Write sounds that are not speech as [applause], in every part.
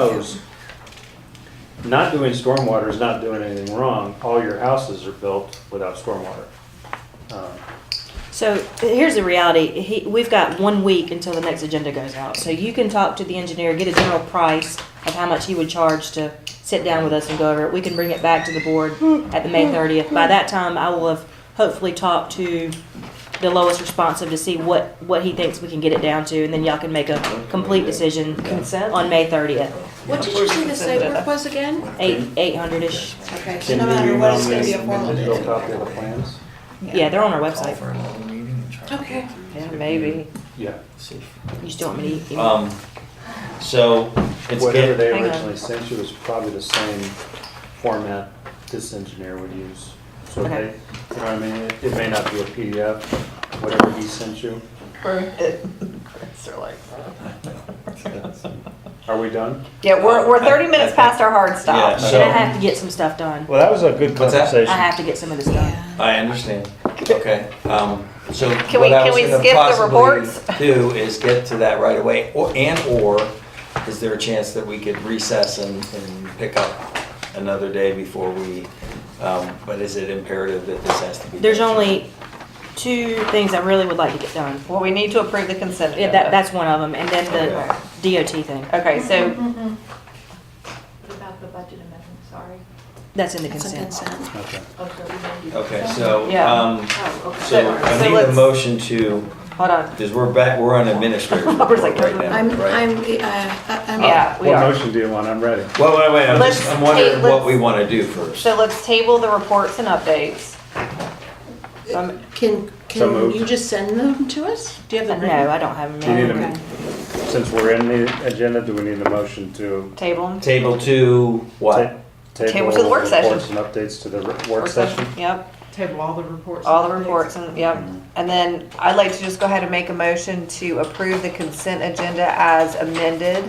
knows, not doing stormwater is not doing anything wrong. All your houses are built without stormwater. Um, So here's the reality. He, we've got one week until the next agenda goes out. So you can talk to the engineer, get a general price of how much he would charge to sit down with us and go over it. We can bring it back to the board at the May 30th. By that time, I will have hopefully talked to the lowest responsive to see what, what he thinks we can get it down to, and then y'all can make a complete decision Consent? on May 30th. What did you say the site work was again? Eight, 800-ish. Okay, so Can no you matter what, it's email me gonna a be a formal digital minute. copy of the plans? Yeah, they're on our Call website. for another meeting and try to get Okay. through Yeah, to- maybe. Yeah, See if- You just don't want me to email. Um, so it's whatever get, they Hang on. originally sent you is probably the same format this engineer would use. So they, you know Okay. what I mean, it it may not be a PDF, whatever he sent you. They're like, Are we done? Yeah, we're, we're 30 minutes past our hard yeah, stop. Should I so, have to get some stuff done? Well, that was a good What's that? I conversation. have to get some of this done. [laughs] I understand, okay, um, so Can we- what I can was we gonna skip the reports? possibly do is get to that right away, or, and or, is there a chance that we could recess and, and pick up another day before we, um, but is it imperative that this has to be? There's done tonight? only two things I really would like to get done. Well, we need to approve the consent Yeah, agenda. that, that's one of them, and then the DOT thing. Okay, so, About the budget amendment, sorry. That's in the It's a consent. consent. Okay. Okay, we may be- Okay, so, Yeah. um, Oh, okay. Oh. so So I need a let's- motion to, hold on. because we're back, we're on [laughs] administrative Robert's report like, right now, I'm, right? I'm, uh, I- I'm. Yeah, we What are. motion do you want? I'm ready. Well, wait, wait, I'm just, Let's I'm wondering take- what let's- we wanna do first. So let's table the reports and updates. Um, Can, So can moved. you just send them to us? Do you have them No, ready? I don't have Do you need Oh, them. a, since we're in the agenda, do we need a motion to? Table them. Table two, what? ta- Table to the work session. Reports and updates to the re- work Work session. session? Yep, Table all the reports. all the reports and, yep. And then I'd like to just go ahead and make a motion to approve the consent agenda as amended.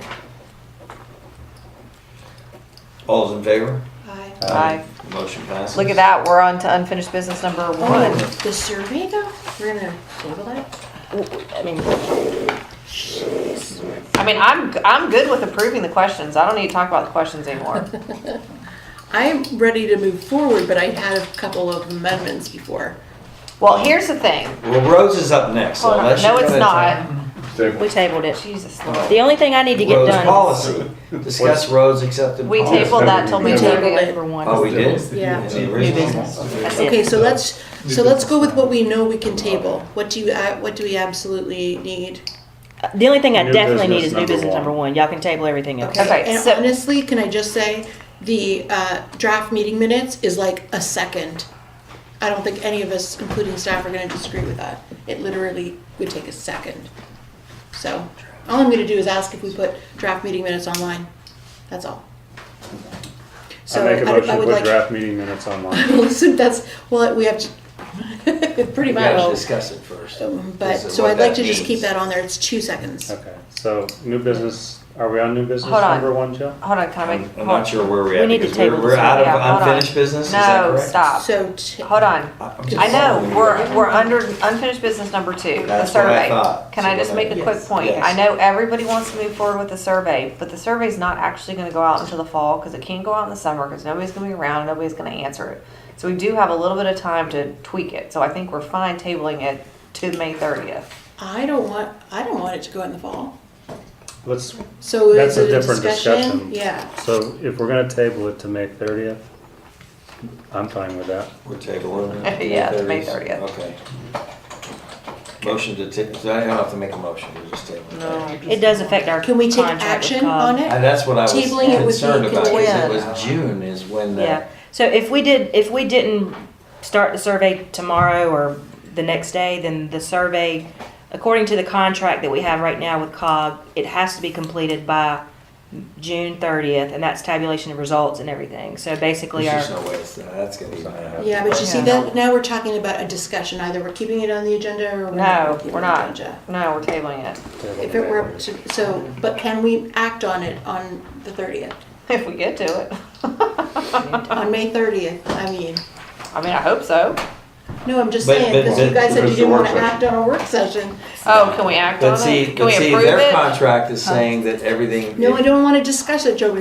All's in favor? Aye. Aye. Motion passes. Look at that, we're on to unfinished business number one. Oh, the survey though? We're gonna table that? I mean, I mean, I'm, I'm good with approving the questions. I don't need to talk about the [laughs] questions anymore. I'm ready to move forward, but I had a couple of amendments before. Well, here's the thing. Well, Rhodes is up next, so Hold on. unless No, you're it's gonna not. talk- we tabled it. Jesus Lord. The only thing I need to get Rhodes done. policy, discuss Rhodes accepted We policy. tabled that till We May tabled it thirtieth. for one. Oh, we did? Yeah. It's the original. That's Okay, it. so let's, so let's go with what we know we can table. What do you, uh, what do we absolutely need? The only thing I New definitely need business is new number business one. number one. Y'all can table everything else. Okay, And so- honestly, can I just say, the uh, draft meeting minutes is like a second. I don't think any of us, including staff, are gonna disagree with that. It literally would take a second. So, all I'm gonna do is ask if we put draft meeting minutes online. That's all. I So make a I would- motion I to would put [laughs] like, draft meeting minutes online. listen, that's, well, we have to, [laughs] pretty We gotta much. discuss it first. But, This is so what I'd like that to just keep means. that on there. It's two seconds. Okay, so new business, are we on new business Hold on. number one, Jill? Hold on, can I I'm make? I'm not sure where we're at, need to because we're, table we're this out Yeah, hold of on. unfinished business, is that No, correct? stop. So, t- Hold on. I'm just I know, following we're, you. we're under unfinished business number two, the That's what I survey. thought. Can So I just we're make a gonna- quick Yes. point? Yes. I know everybody wants to move forward with the survey, but the survey's not actually gonna go out until the fall, cause it can't go out in the summer, cause nobody's gonna be around, nobody's gonna answer it. So we do have a little bit of time to tweak it, so I think we're fine tabling it to May thirtieth. I don't want, I don't want it to go in the fall. Let's, So That's is a it a different discussion? discussion. Yeah. so if we're gonna table it to May thirtieth, I'm fine with that. We're tabling. it. [laughs] Yeah, it's May 30th. Okay. Motion to ta, so I don't have to make a motion, we're just tabling. it. It does affect our Can we take contract with action Cobb. on it? And that's what I was Tabling it would be concerned about, because it contingent. was June is when Yeah, the, so if we did, if we didn't start the survey tomorrow or the next day, then the survey, according to the contract that we have right now with COG, it has to be completed by June thirtieth, and that's tabulation of results and everything, so basically there's our. just no way it's, that's gonna be. Yeah, but you see Yeah. that, now we're talking about a discussion, either we're keeping it on the agenda or we're No, not. keeping it we're on the not. agenda. No, we're tabling it. [laughs] Table If to it May were, 30th. to- so, but can we act on it on the thirtieth, If we get to [laughs] it. on May thirtieth, I mean, I mean, I hope so. No, I'm just But- saying, but because you the- guys said you because the didn't work want to session. act on a work session. Oh, can we act on But it? see, Can but we see, approve their it? contract is saying that everything. No, I don't want to discuss it, Joe,